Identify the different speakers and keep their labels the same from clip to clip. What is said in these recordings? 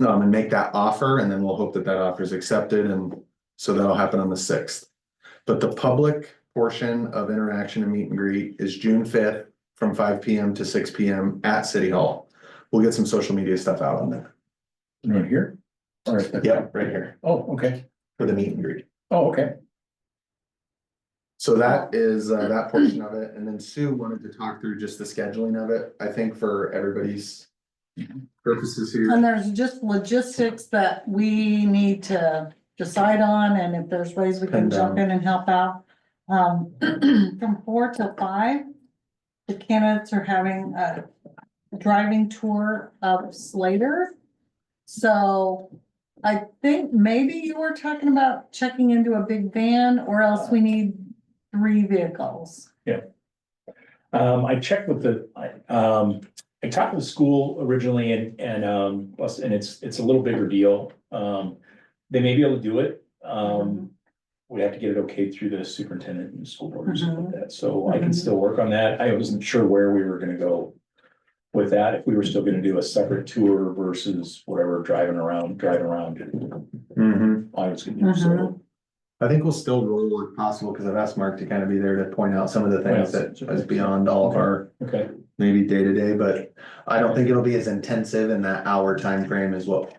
Speaker 1: um, and make that offer, and then we'll hope that that offer is accepted, and so that'll happen on the sixth. But the public portion of interaction and meet and greet is June fifth from five P M to six P M at City Hall. We'll get some social media stuff out on that.
Speaker 2: Right here? Or-
Speaker 1: Yep, right here
Speaker 2: Oh, okay.
Speaker 1: for the meet and greet.
Speaker 2: Oh, okay.
Speaker 1: So that is uh, that portion of it, and then Sue wanted to talk through just the scheduling of it, I think for everybody's purposes here.
Speaker 3: And there's just logistics that we need to decide on, and if there's ways we
Speaker 1: Pin
Speaker 3: can jump in and help out. Um, from four to five, the candidates are having a driving tour of Slater. So I think maybe you were talking about checking into a big van, or else we need three vehicles.
Speaker 2: Um, I checked with the, I, um, I talked with the school originally and, and, um, plus- and it's, it's a little bigger deal. Um, they may be able to do it. Um, we have to get it okay through the superintendent and school board or something like that. So I can
Speaker 3: Mhm.
Speaker 2: still work on that. I wasn't sure where we were gonna go with that, if we were still gonna do a separate tour versus whatever, driving around, driving around.
Speaker 1: Mhm.
Speaker 2: I was gonna do so.
Speaker 1: I think we'll still roll if possible, because I've asked Mark to kind of be there to point out some of the things that is beyond all of our
Speaker 2: Okay,
Speaker 1: maybe day to day, but I don't think it'll be as intensive in that hour time frame as what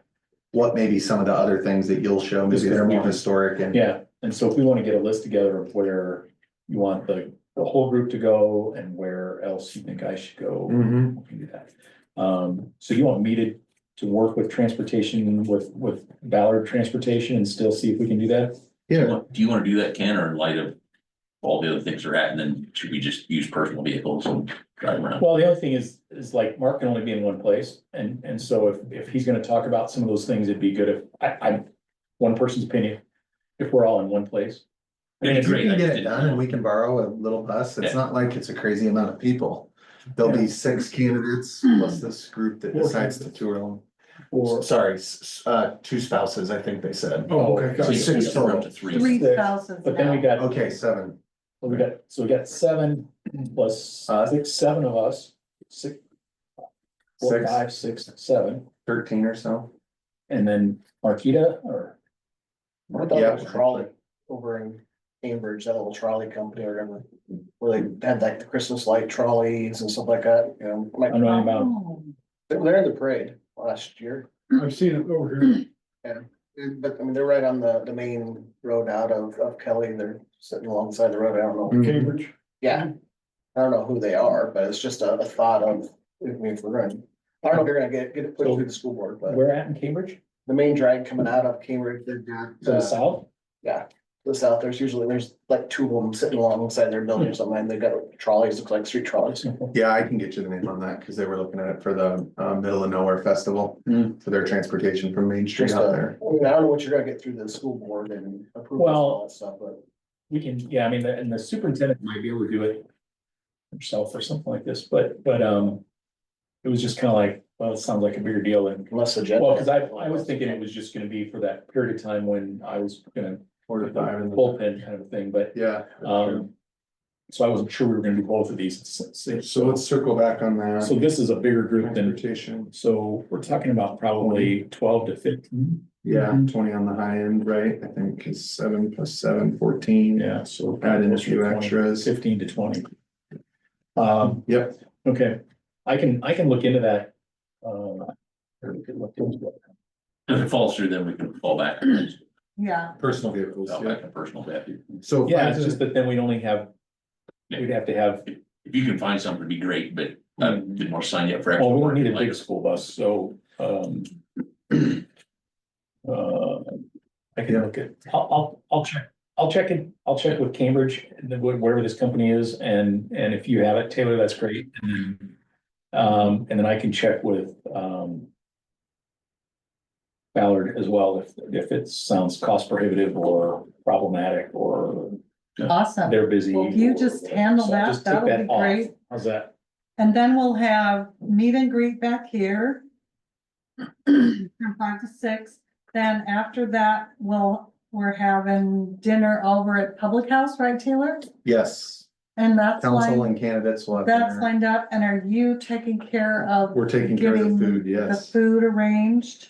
Speaker 1: what maybe some of the other things that you'll show, maybe they're more historic and
Speaker 2: yeah. And so if we wanna get a list together of where you want the, the whole group to go and where else you think I should go.
Speaker 1: Mhm.
Speaker 2: we can do that. Um, so you want me to, to work with transportation, with, with Ballard Transportation and still see if we can do that?
Speaker 1: Yeah,
Speaker 4: What- Do you wanna do that, Ken, or in light of all the other things are at, and then should we just use personal vehicles and drive around?
Speaker 2: Well, the other thing is, is like Mark can only be in one place. And, and so if, if he's gonna talk about some of those things, it'd be good if, I, I'm one person's opinion, if we're all in one place. I mean,
Speaker 1: if
Speaker 2: it's-
Speaker 1: you
Speaker 4: Great, I
Speaker 1: can get
Speaker 4: just
Speaker 1: it
Speaker 4: didn't
Speaker 1: done and
Speaker 4: know.
Speaker 1: we can borrow a little bus, it's
Speaker 4: Yeah.
Speaker 1: not like it's a crazy amount of people. There'll be six candidates plus this group that
Speaker 2: Four
Speaker 1: decides to tour them.
Speaker 2: Or,
Speaker 1: Sorry, s- s- uh, two spouses, I think they said.
Speaker 2: oh, okay,
Speaker 4: So
Speaker 2: gotcha.
Speaker 4: you
Speaker 1: six
Speaker 4: can go up to
Speaker 1: total.
Speaker 4: three.
Speaker 3: Three spouses
Speaker 2: But then we
Speaker 3: now.
Speaker 2: got,
Speaker 1: Okay, seven.
Speaker 2: we got, so we got seven plus, I think, seven of us, six, four,
Speaker 1: Six.
Speaker 2: five, six, seven.
Speaker 1: Thirteen or so.
Speaker 2: And then Marquita or?
Speaker 5: I thought
Speaker 1: Yeah.
Speaker 5: it was trolley over in Cambridge, that little trolley company or whatever, where they had like the Christmas light trolleys and stuff like that, you know,
Speaker 2: I
Speaker 5: like,
Speaker 2: don't know about,
Speaker 3: Oh,
Speaker 5: they were there in the parade last year.
Speaker 6: I've seen it over here.
Speaker 5: But I mean, they're right on the, the main road out of, of Kelly, they're sitting alongside the road, I don't know,
Speaker 6: Mm. Cambridge.
Speaker 5: yeah. I don't know who they are, but it's just a, a thought of, I mean, if we're going, I don't know if they're gonna get, get it put through the school board, but
Speaker 2: where at in Cambridge,
Speaker 5: the main drag coming out of Cambridge, they've got.
Speaker 2: to the
Speaker 5: uh,
Speaker 2: south?
Speaker 5: the south, there's usually, there's like two of them sitting alongside their building
Speaker 2: Hmm.
Speaker 5: or something, and they've got trolleys, looks like street trolleys.
Speaker 1: Yeah, I can get you the name on that because they were looking at it for the uh, Middle of Nowhere Festival
Speaker 2: Hmm.
Speaker 1: for their transportation from Main Street
Speaker 5: Just,
Speaker 1: out
Speaker 5: uh,
Speaker 1: there.
Speaker 5: I mean, I don't know what you're gonna get through the school board and approval and all that stuff, but.
Speaker 2: We can, yeah, I mean, the- and the superintendent might be able to do it himself or something like this, but, but, um, it was just kind of like, well, it sounds like a bigger deal than,
Speaker 5: Unless the.
Speaker 2: well, because I, I was thinking it was just gonna be for that period of time when I was gonna
Speaker 1: Four to five in the-
Speaker 2: bullpen kind of thing, but,
Speaker 1: Yeah.
Speaker 2: um, so I wasn't sure we were gonna do both of these. So,
Speaker 1: So let's circle back on that.
Speaker 2: so this is a bigger group than,
Speaker 1: Transportation,
Speaker 2: so we're talking about probably twelve to fifteen.
Speaker 1: yeah, twenty on the high end, right? I think is seven plus seven, fourteen.
Speaker 2: Yeah, so.
Speaker 1: Add in a
Speaker 2: closer to
Speaker 1: few
Speaker 2: 20,
Speaker 1: extras.
Speaker 2: Fifteen to twenty. Um,
Speaker 1: Yep.
Speaker 2: okay, I can, I can look into that. Uh, or we could look into it.
Speaker 4: If it falls through, then we can fall back, and just
Speaker 3: Yeah,
Speaker 1: Personal vehicles,
Speaker 4: fall back to personal vehicle.
Speaker 1: So.
Speaker 2: Yeah, it's just that then we'd only have,
Speaker 4: Yeah.
Speaker 2: we'd have to have,
Speaker 4: If you can find something, it'd be great, but I didn't wanna sign you up for. extra
Speaker 2: Mm-hmm. well, we
Speaker 4: work,
Speaker 2: don't need a
Speaker 4: like-
Speaker 2: big school bus, so, um. Uh, I can look at, I'll, I'll, I'll check, I'll check it, I'll check with Cambridge, and then wh- whatever this company is, and, and if you have it, Taylor, that's great, and then. Um, and then I can check with, um. Ballard as well, if, if it sounds cost prohibitive or problematic, or
Speaker 3: awesome.
Speaker 2: they're busy.
Speaker 3: Well, if you
Speaker 2: or-
Speaker 3: just handle
Speaker 2: so
Speaker 3: that,
Speaker 2: just
Speaker 3: that
Speaker 2: take
Speaker 3: would
Speaker 2: that
Speaker 3: be
Speaker 2: off.
Speaker 3: great.
Speaker 2: How's that?
Speaker 3: And then we'll have meet and greet back here. From five to six, then after that, we'll, we're having dinner over at Public House, right, Taylor?
Speaker 1: Yes,
Speaker 3: And that's
Speaker 1: council
Speaker 3: lined,
Speaker 1: and candidates will have.
Speaker 3: that's
Speaker 1: dinner.
Speaker 3: lined up, and are you taking care of
Speaker 1: We're taking care of the
Speaker 3: getting
Speaker 1: food,
Speaker 3: the
Speaker 1: yes.
Speaker 3: food arranged?